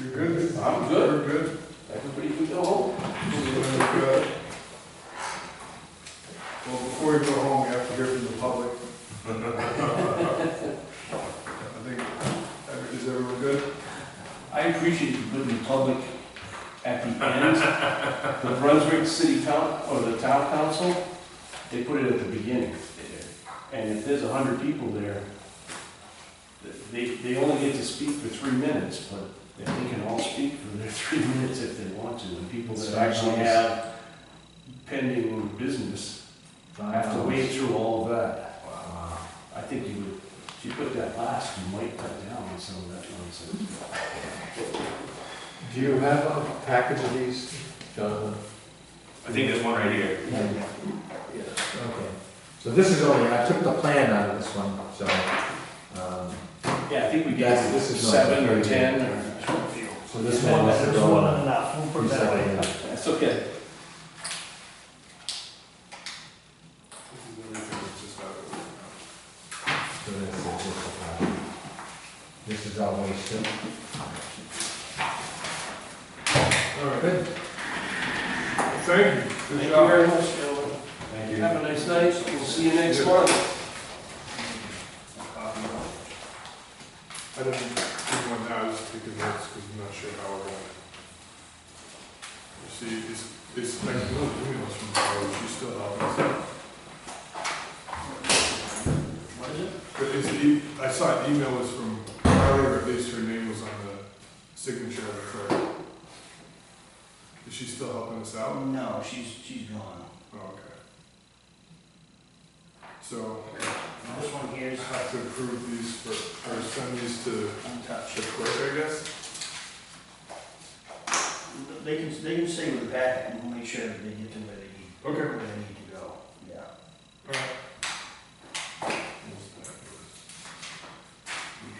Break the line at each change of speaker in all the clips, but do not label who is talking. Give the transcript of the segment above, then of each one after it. You're good?
I'm good.
You're good?
Everybody can go home.
You're good. Well, before you go home, you have to hear from the public. I think, is everyone good?
I appreciate you putting the public at the end. The Brunswick City Coun, or the Town Council, they put it at the beginning. And if there's a hundred people there, th- they, they only get to speak for three minutes, but they can all speak for their three minutes if they want to. And people that actually have pending business have to wade through all of that.
Wow.
I think you would, if you put that last, you might cut down on some of that nonsense.
Do you have a package of these, Jonathan?
I think there's one right here.
Yeah. Okay. So this is only, I took the plan out of this one, so, um,
Yeah, I think we gave
That's- this is not
seven
very
or
good.
ten or.
so this one was the
There's one
one.
and a half, we'll put that away.
Exactly.
That's okay.
So this is just a package. This is our waste.
All right,
Good.
thank you.
Thank
Good
you
job.
very much, gentlemen.
Thank
Have a nice night. We'll see you next month.
Um, I don't think one now, just because that's, because I'm not sure how we're going. You see, it's, it's like, no, emails from college, you still have us.
What is it?
But it's, e- I saw an email was from Carly, or at least her name was on the signature of the clerk. Is she still helping us out?
Oh, No, she's, she's gone.
Oh, okay. So,
Now, This one here
I
is
have to approve these for, or send these to the
untouched.
clerk, I guess?
They can, they can stay with that and we'll make sure that they get to where they need,
Okay.
where they need to go. Yeah.
Alright.
You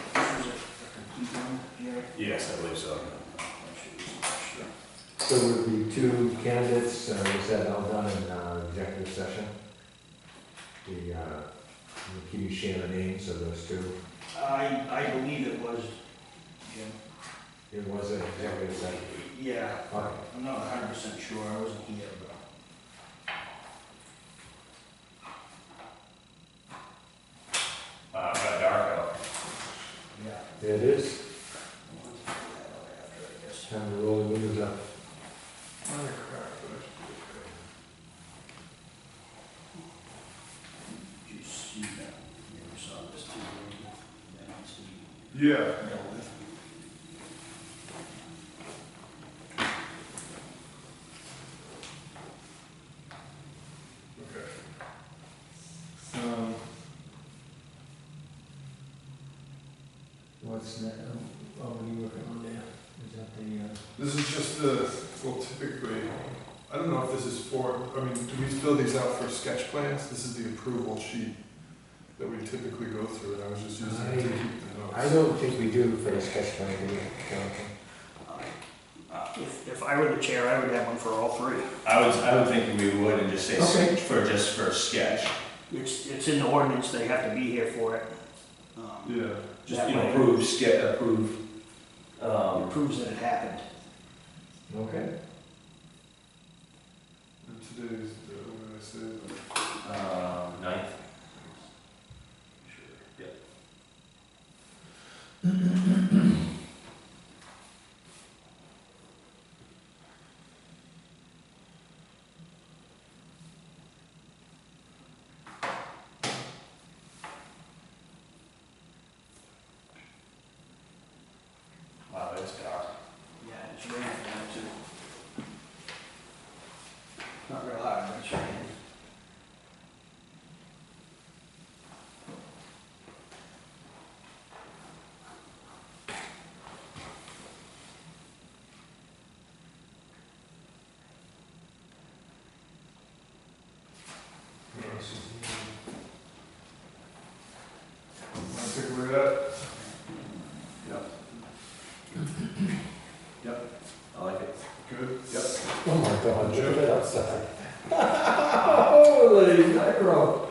can, uh, this is a complete one here.
Yes, I believe so.
That should be sufficient.
So would be two candidates, uh, was that all done in, uh, executive session? The, uh, can you share the names of those two?
I, I believe it was, Jim.
It was an executive session.
Yeah,
Okay.
I'm not hundred percent sure, I wasn't here, but.
Uh, I've got dark out.
Yeah.
There it is.
I'll have to figure that out after, I guess.
Time to roll the windows up.
Another crap, but I should do it.
Did you see that? You ever saw this too? That needs to be
Yeah,
dealt with.
okay. Um,
What's that, oh, what are you working on there? Is that the, uh?
this is just the, well typically, I don't know if this is for, I mean, do we fill these out for sketch plans? This is the approval sheet that we typically go through, and I was just using it to
I-
keep the notes.
I don't think we do for the sketch plan, do we, Jonathan?
Uh, If, if I were the chair, I would have one for all three.
I was, I would think we would and just say,
Okay.
s- for, just for sketch,
It's, it's in the ordinance, they have to be here for it. Um,
Yeah,
just,
That
you know,
way.
approve, sketch, approve.
it
Um,
Proves that it happened.
Okay.
and today's, uh, what did I say?
uh, ninth. Yep. Wow, it's dark.
Yeah, it's raining down too. Not real hard, but it's raining.
Wanna take away that?
I like it.
Good?
Oh my God,
look at
outside. Holy mackerel.